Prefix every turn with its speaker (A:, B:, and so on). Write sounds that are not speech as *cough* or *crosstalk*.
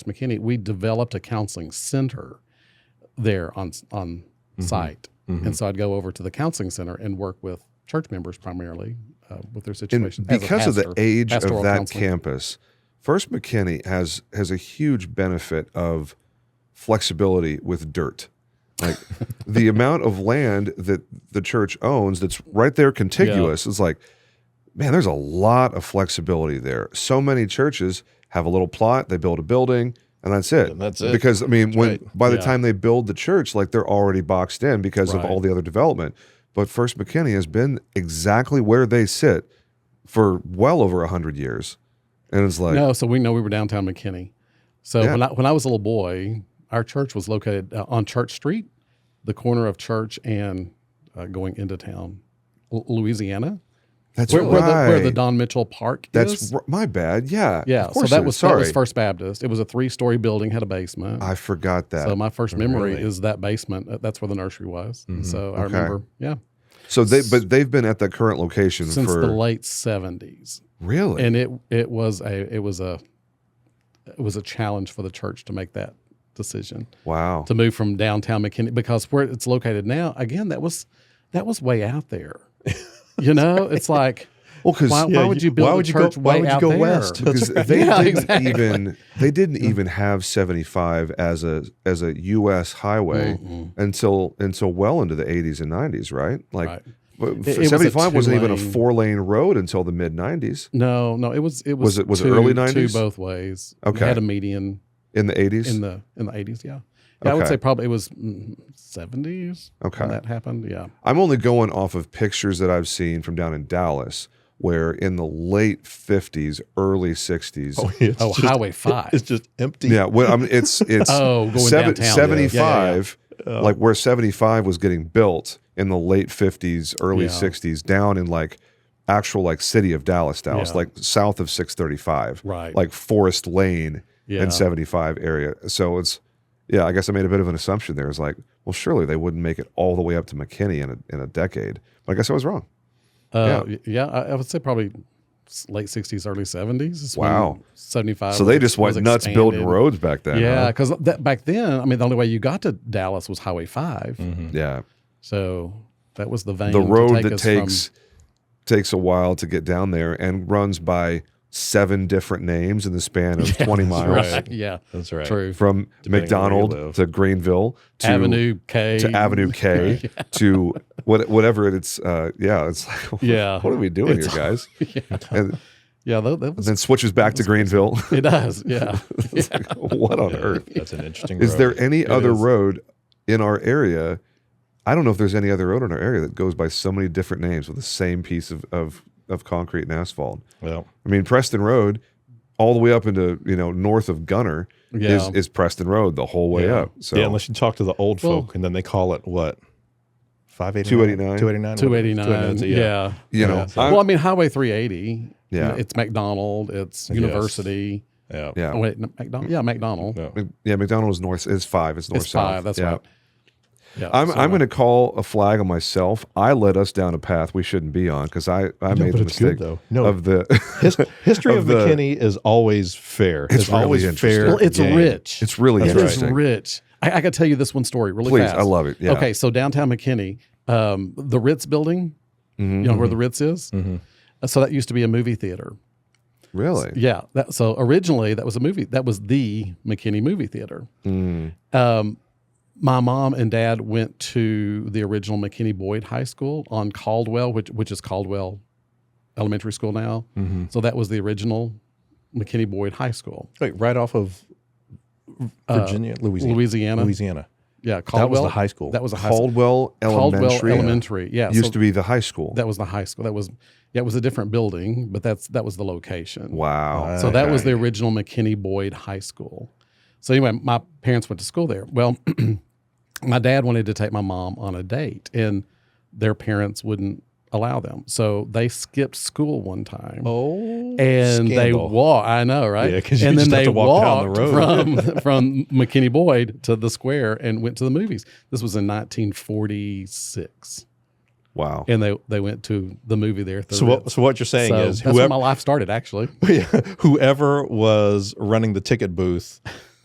A: McKinney, we developed a counseling center there on on site,
B: Mhm.
A: and so I'd go over to the counseling center and work with church members primarily uh, with their
B: And
A: situation. as a
B: because of the
A: pastor.
B: age of
A: pastoral
B: that
A: counseling.
B: campus, First McKinney has has a huge benefit of flexibility with dirt.
A: *laughs*
B: Like the amount of land that the church owns that's right there contiguous is like, man, there's a lot of flexibility there. So many churches have a little plot, they build a building, and that's it.
C: And that's it.
B: Because I mean, when
C: right.
B: by the
A: Yeah.
B: time they build the church, like they're already boxed in because of
A: Right.
B: all the other development. But First McKinney has been exactly where they sit for well over a hundred years, and it's like
A: no, so we know we were downtown McKinney. So
B: Yeah.
A: when I when I was a little boy, our church was located uh, on Church Street, the corner of Church and uh, going into town, L- Louisiana,
B: that's
A: where,
B: right.
A: where, the, where the Don Mitchell Park
B: that's
A: is.
B: r- my bad. Yeah,
A: Yeah,
B: Of
A: so
B: course it
A: that
B: is.
A: was that
B: sorry.
A: was First Baptist. It was a three story building, had a basement.
B: I forgot that.
A: so my first memory
C: Really?
A: is that basement. Uh, That's where the nursery was. And
C: Mhm.
A: So I
B: Mm-hmm. Okay.
A: remember, yeah,
B: so they but they've been at that current location
A: since
B: for
A: the late seventies.
B: really.
A: and it it was a it was a it was a challenge for the church to make that decision
B: wow.
A: to move from downtown McKinney because where it's located now again that was that was way out
B: *laughs*
A: there you know it's like
B: Well, because
A: why, why would you build
C: why
A: a
C: would you go-
A: church
C: why
A: way
C: would you
A: out
C: go
A: there? *laughs*
C: west?
B: because
C: That's right.
B: they
A: Yeah,
B: didn't
A: exactly.
B: even they didn't even have 75 as a as a U.S. highway
A: Mm-mm.
B: until until well into the 80s and 90s, right? Like
A: Right.
B: w-
A: It- it was a
B: 75 was not even a
A: two-lane-
B: four lane road until the mid 90s
A: no no it was it was
B: Was it- was it
A: two-
B: early
A: two
B: 90s?
A: both ways It
B: Okay.
A: had a median
B: in the 80s.
A: in the in the 80s yeah, Yeah, I would
B: Okay.
A: say probably it was mm, 70s
B: okay,
A: when that happened yeah
B: I'm only going off of pictures that I've seen from down in Dallas, where in the late 50s, early 60s.
C: it's
A: oh
C: just-
A: highway 5
C: It's just empty.
B: Yeah, well, I mean,
A: *laughs*
B: it's it's
A: oh going
B: seven-
A: downtown
B: 75
A: Yeah, yeah, yeah.
C: Uh,
B: like where 75 was getting built in the late 50s early
A: Yeah.
B: 60s down in like actual like city of dallas dallas
A: Yeah.
B: like south of 635
A: right
B: like forest lane
A: yeah.
B: and 75 area so it's yeah i guess i made a bit of an assumption there it's like well surely they wouldn't make it all the way up to mckinney in a, in a decade but i guess i was wrong
A: Uh, yeah, yeah I, I would say probably s- late '60s, early '70s. is when
B: Wow.
A: '75.
B: so they just went nuts building roads back then
A: Yeah,
B: huh?
A: because that back then, I mean, the only way you got to Dallas was Highway 5
C: mhm.
B: yeah
A: So that was the vein.
B: Mm. the
A: to
B: road
A: take
B: that
A: us from-
B: takes takes a while to get down there and runs by seven different names in the span
A: *laughs*
B: of 20 miles
A: Right, yeah,
C: That's right.
A: true.
B: from
C: Depending on where you
B: McDonald
C: live.
B: to Greenville to
A: Avenue K
B: to Avenue
A: *laughs*
B: K to what whatever it- it's uh yeah it's like *laughs*
A: Yeah.
B: what are we doing
A: It's-
B: here guys
A: yeah,
B: and
A: yeah, that, that was
B: then switches back
A: *laughs*
B: to Greenville *laughs*
A: it. Does yeah,
B: It's like, what on
C: Yeah,
B: earth
C: That's an interesting.
B: is there
C: road.
B: any
C: It
B: other
C: is.
B: road in our area I don't know if there's any other road in our area that goes by so many different names with the same piece of of, of concrete and asphalt
C: Well,
B: I mean Preston Road all the way up into you know north of Gunner
A: yeah.
B: is, is Preston Road the whole way
C: Yeah.
B: up so
C: yeah, unless you talk to the old
A: Well-
C: folk and then they call it what? 589?
B: 289.
C: 289.
A: 289. Yeah.
B: you know
C: Yeah, so-
B: I-
A: Well, I mean, Highway 380.
B: Yeah.
A: It's McDonald. It's
C: Yes.
A: University.
C: Yeah.
B: yeah
A: Oh, wait, no, McDonald. Yeah, McDonald.
C: No.
B: Mc- Yeah, McDonald's north is five. It's north
A: it's
B: south.
A: five. That's
B: yeah.
A: right. Yeah,
B: I'm
A: so
B: I'm going to call a flag on myself. I led us down a path we shouldn't be on because I I
C: No,
B: made
C: but
B: the
C: it's
B: mistake
C: good, though. No.
B: of the
C: His,
A: *laughs*
C: history of,
B: Of the-
C: McKinney is always fair. It's,
B: really
C: always
B: interesting.
C: fair.
A: Well, it's
C: game.
A: rich.
B: *laughs* it's really
C: That's
A: It is
B: interesting.
A: rich. I, I could tell you this one story really
B: Please,
A: fast.
B: I love it. Yeah.
A: Okay, so downtown McKinney, um, the Ritz building,
B: Mhm.
A: you know where the Ritz is.
C: Mhm.
A: Uh, So that used to be a movie theater.
B: Really.
A: Yeah. That, so originally that was a movie. That was the McKinney movie theater.
B: Mm.
A: Um, my mom and dad went to the original McKinney Boyd High School on Caldwell, which which is Caldwell Elementary School now.
C: Mhm.
A: So that was the original McKinney Boyd High School.
C: Like right off of Virginia, Louisiana.
A: Uh, Louisiana.
C: Louisiana.
A: Yeah,
C: That was
A: Caldwell.
C: the high school.
A: That was a high school.
B: Caldwell Elementary
A: Caldwell Elementary. Yeah,
B: used
A: so
B: to be the high school.
A: that was the high school. That was yeah, it was a different building, but that's that was the location.
C: Uh,
B: wow.
A: So that was
C: Okay.
A: the original McKinney Boyd High School. So anyway, my parents went to school there. Well, *clears throat* my dad wanted to take my mom on a date, and their parents wouldn't allow them. So they skipped school one time.
C: Oh,
A: and they
C: scandal.
A: walk. I know, right?
C: Yeah, 'cause you
A: and then
C: just have
A: they
C: to walk down the
A: walked
C: road. *laughs*
A: from from McKinney Boyd to the square and went to the movies. This was in 1946,
B: Wow.
A: and they they went to the movie there. at the
C: So
A: Ritz.
C: what, so what you're saying
A: So
C: is
A: that's where my
C: whoever, *laughs*
A: life started, actually.
C: whoever was running the ticket booth